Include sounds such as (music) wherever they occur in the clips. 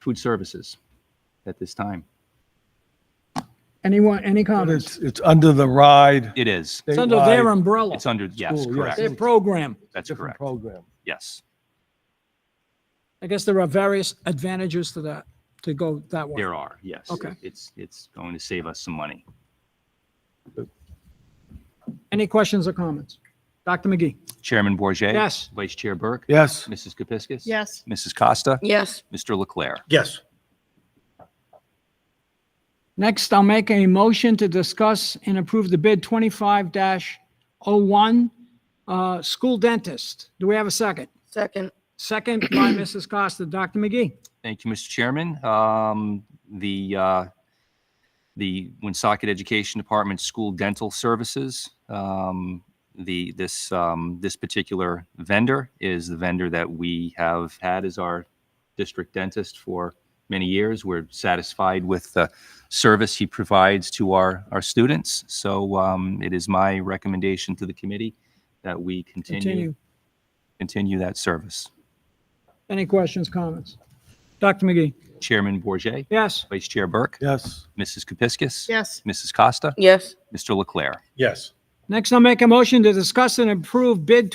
food services at this time. Anyone, any But comments? it's, it's under the ride. It is. It's under their umbrella, It's under, yes, School, correct. yes. their program. That's Different correct. program. Yes. I guess there are various advantages to that, to go that way. There are, yes. Okay. It's, it's going to save us some money. Any questions or comments? Dr. McGee? Chairman Bourget, Yes. Vice Chair Burke. Yes, Mrs. Kepiscus. Yes. Mrs. Costa. Yes. Mr. Leclerc. Yes. Next, I'll make a motion to discuss and approve the bid 25-01, uh, school dentist. Do we have a second? Second. (clears throat) Second by Mrs. Costa. Dr. McGee? Thank you, Mr. Chairman. Um, The, uh, the Woonsocket Education Department School Dental Services, um, the, this, um, this particular vendor is the vendor that we have had as our district dentist for many years. We're satisfied with the service he provides to our, our students. So um, it is my recommendation to the committee that we continue, continue that service. Any questions, comments? Dr. McGee? Chairman Bourget, Yes. Vice Chair Burke. yes, Mrs. Kepiscus. Yes. Mrs. Costa. Yes. Mr. Leclerc. Yes. Next, I'll make a motion to discuss and approve bid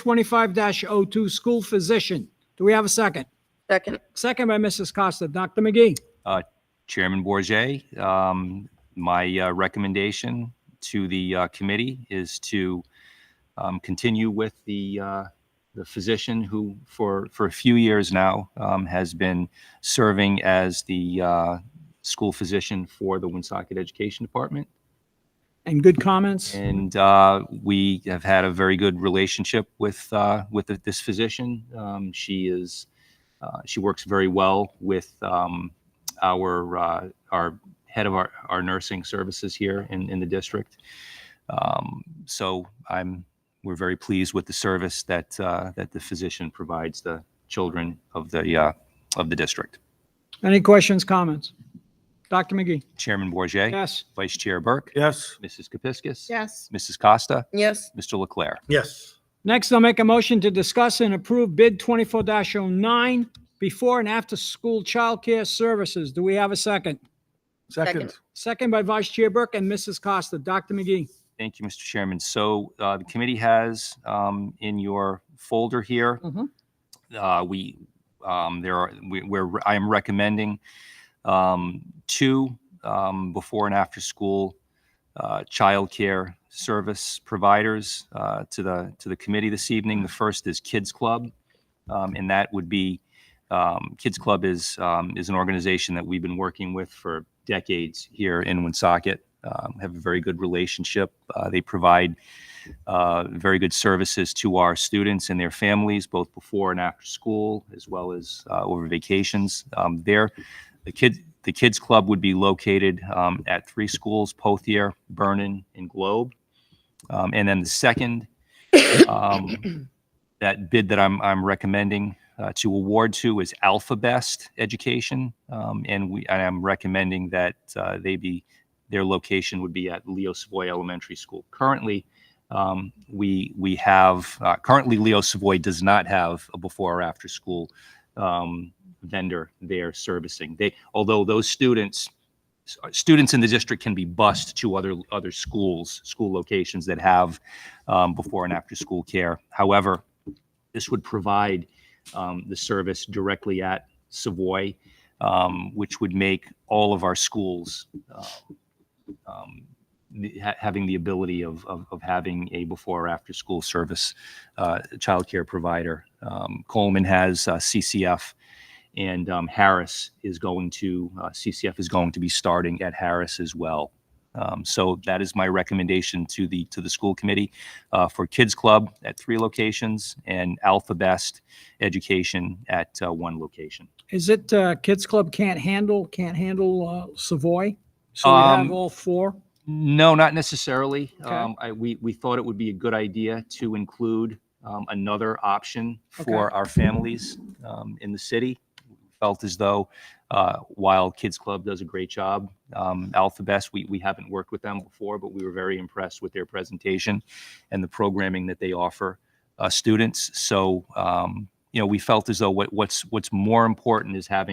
25-02, school physician. Do we have a second? Second. Second by Mrs. Costa. Dr. McGee? Chairman Bourget, um, my uh, recommendation to the uh, committee is to um, continue with the, uh, the physician who for, for a few years now um, has been serving as the uh, school physician for the Woonsocket Education Department. And good comments? And uh, we have had a very good relationship with, uh, with this physician. Um, She is, uh, she works very well with um, our, uh, our head of our, our nursing services here in, in the district. Um, So I'm, we're very pleased with the service that, uh, that the physician provides the children of the, uh, of the district. Any questions, comments? Dr. McGee? Chairman Bourget, Yes. Vice Chair Burke, yes, Mrs. Kepiscus. Yes. Mrs. Costa, Yes. Mr. Leclerc. Yes. Next, I'll make a motion to discuss and approve bid 24-09, before and after-school childcare services. Do we have a second? second, Second by Vice Chair Burke and Mrs. Costa. Dr. McGee? Thank you, Mr. Chairman. So uh, the committee has um, in your folder here, Mhm. uh, we, um, there are, we- we're, I am recommending um, two um, before and after school uh, childcare service providers uh, to the, to the committee this evening. The first is Kids Club, um, and that would be, um, Kids Club is, um, is an organization that we've been working with for decades here in Woonsocket. Um, have a very good relationship. Uh, they provide uh, very good services to our students and their families, both before and after school, as well as uh, over vacations. Um, there, the kid, the kids club would be located um, at three schools: Pothier, Vernon, and Globe. Um, and then the second, um, that bid that I'm I'm recommending uh, to award to is Alpha Best Education, um, and we and I'm recommending that uh, they be their location would be at Leo Savoy Elementary School. Currently, um, we we have uh, currently Leo Savoy does not have a before or after school um, vendor there servicing. They although those students students in the district can be bused to other other schools school locations that have um, before and after school care. However, this would provide um, the service directly at Savoy, um, which would make all of our schools uh, um, the- ha- having the ability of, of, of having a before or after school service uh, childcare provider. Um, Coleman has uh, CCF and um, Harris is going to, uh, CCF is going to be starting at Harris as well. Um, so that is my recommendation to the to the school committee uh, for Kids Club at three locations and Alpha Best Education at uh, one location. Is it uh, Kids Club can't handle, can't handle uh, Savoy? So we have Um, all four? No, not necessarily. Okay. Um, I, we, we thought it would be a good idea to include, um, another option for our families, um, in the city. Felt as though, uh, while Kids Club does a great job, um, Alpha Best, we, we haven't worked with them before, but we were very impressed with their presentation and the programming that they offer, uh, students. So, um, you know, we felt as though what, what's, what's more important is having